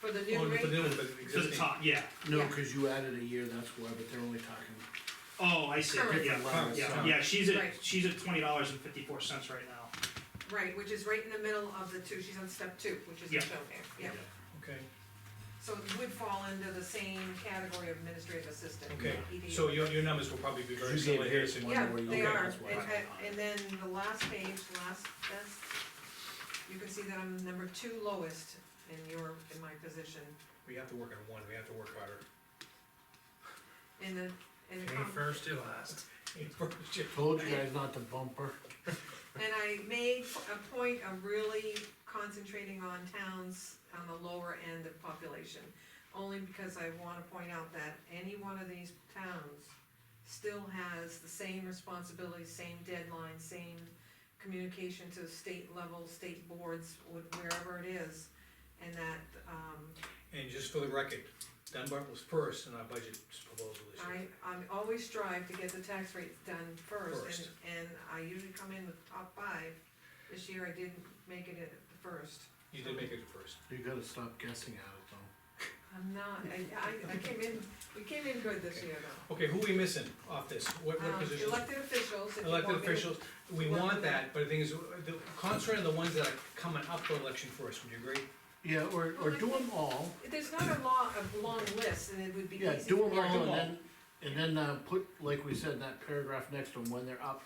for the Oh, Well, new for rate? the- But for the existing- top, yeah, No, Yeah. cause you added a year, that's why, but they're only talking, oh, I see, Current. yeah, Current, yeah, current. yeah, she's at, Right. she's at twenty dollars and fifty-four cents right now. Right, which is right in the middle of the two, she's on step two, which Yeah. is shown here, yeah. Okay, So it would fall into the same category of administrative assistant. okay, ED. so your, your numbers will probably be You very gave similar here, his so- one. Yeah, where you they get are, this one. and, and then the last page, last, that's, you can see that I'm number two lowest in your, in my position, we have to work on one, we have to work harder. in the, in the. Aim comp- first, you last. Aim first, you- told you guys not to bumper. And I made a point of really concentrating on towns on the lower end of population, only because I wanna point out that any one of these towns still has the same responsibilities, same deadlines, same communication to state level, state boards, wh- wherever it is, and that, um, And just for the record, Dunbar was first in our budget proposal this year. I, I'm always strive to get the tax rates done first, First. and, and I usually come in with top five. This year I didn't make it at the first. You did make it first. You gotta stop guessing at it though. I'm not, I, I, I came in, we came in good this year though. Okay, who we missing off this? What, what Um, positions? Elected officials, if you want me Elected to. officials, we want want me to- that, but the thing is, the, concentrate on the ones that are coming up for election first, would you agree? Yeah, or, or Well, do them all, There's not a long, a long list, and it would be easy. yeah, do them for- all them and all. then, and then, uh, put, like we said, that paragraph next to them, when they're up.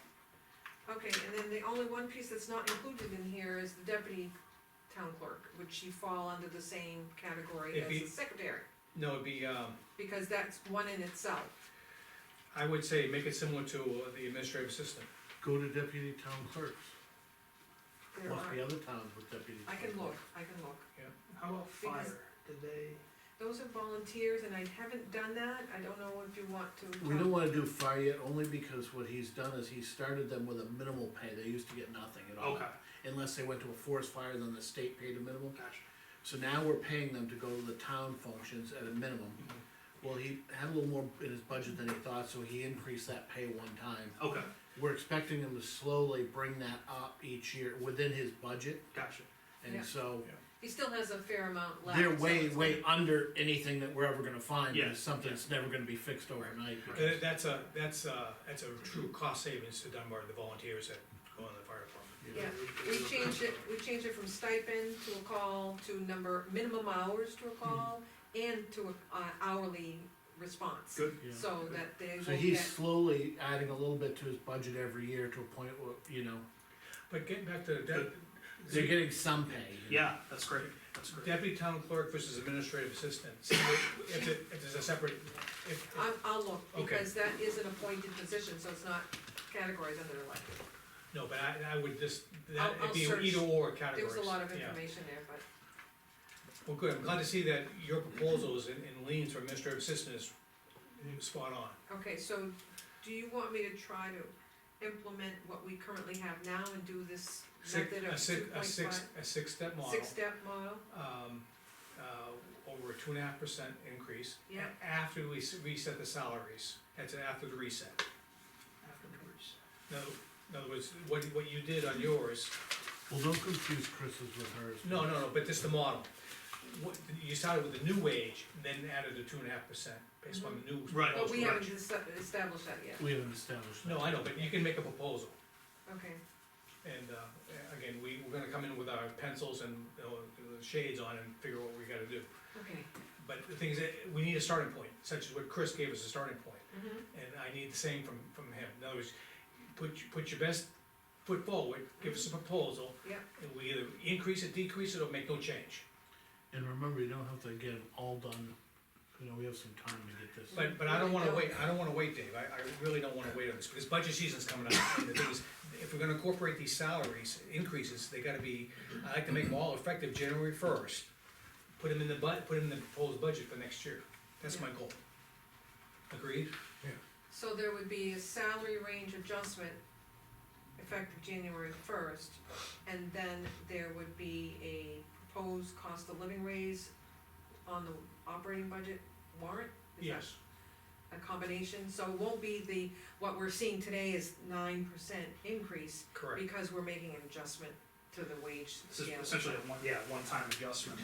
Okay, and then the only one piece that's not included in here is the deputy town clerk, would she fall under the same category If as he- the secretary? No, it'd be, um, Because that's one in itself. I would say make it similar to uh, the administrative assistant. Go to deputy town clerks, There plus are, the other towns with deputy. I can town look, clerks. I can look. How about Because- fire? Did they, Those are volunteers, and I haven't done that, I don't know if you want to. We talk- don't wanna do fire yet, only because what he's done is he started them with a minimal pay, they used to get nothing at all. Okay, Unless they went to a forest fire, then the state paid a minimum. gotcha. So now we're paying them to go to the town functions at a minimum. Mm-hmm. Well, he had a little more in his budget than he thought, so he increased that pay one time. Okay, We're expecting him to slowly bring that up each year within his budget, gotcha. Yeah. and so He still has a fair amount left. they're so way, it's way under anything that we're ever gonna find, Yeah. and it's something that's never gonna be fixed overnight. That- That's a, that's a, that's a true cost savings to Dunbar, the volunteers that go in the fire department. Yeah, we changed it, we changed it from stipend to a call to number, minimum hours to Hmm. a call and to a uh, hourly response. Good. Yeah. So that they So will he's get, slowly adding a little bit to his budget every year to a point where, you know, But getting back to that, they're getting some pay. you know. Yeah, that's great, that's great. deputy town clerk versus administrative assistant, see if, if it- if there's a separate, if, if- I'm, I'll look, Okay. because that is an appointed position, so it's not categorized under elected. no, but I, I would just, I'll- that, I'll it'd search. be either or There categories. was a lot of yeah. information there, but Well, good, I'm glad to see that your proposals and, and leans for administrative assistant is spot on. Okay, so do you want me to try to implement what we currently have now and do this Six, method a of two six, a point six, five? a six-step model, Six-step model? um, uh, over a two and a half percent increase. Yeah. a- After we s- reset the salaries, that's after the reset. afterwards? In other- in other words, what, what you did on yours, Well, don't confuse Chris's with hers. no, no, no, but just the model. What, you started with the new wage, then added the two and a half percent based on the new. Right. Mm-hmm. But proposed we wage. haven't esta- established that yet, We haven't established that. No, I know, but you can make a proposal. okay. And, uh, again, we, we're gonna come in with our pencils and, you know, shades on and figure out what we gotta do. Okay. But the thing is, eh, we need a starting point, such as what Chris gave us a starting point, Mhm. and I need the same from, from him. In other words, put, your- put your best foot forward, give us a proposal. Yep. And we either increase it, decrease it, or make no change. And remember, you don't have to get them all done, you know, we have some time to get this. But, but I don't wanna wait, I don't wanna wait, Dave, I, I really don't wanna wait on this, because budget season's coming up. And the thing is, if we're gonna incorporate these salaries, increases, they gotta be, I like to make them all effective January first. Put them in the bud, put them in the proposed budget for next year. That's my goal. Agreed? So there would be a salary range adjustment effective January first, and then there would be a proposed cost of living raise on the operating budget warrant? Is that Yes. A combination, so it won't be the, what we're seeing today is nine percent increase Correct. because we're making an adjustment to the wage This is scale. essentially a one, yeah, one-time adjustment.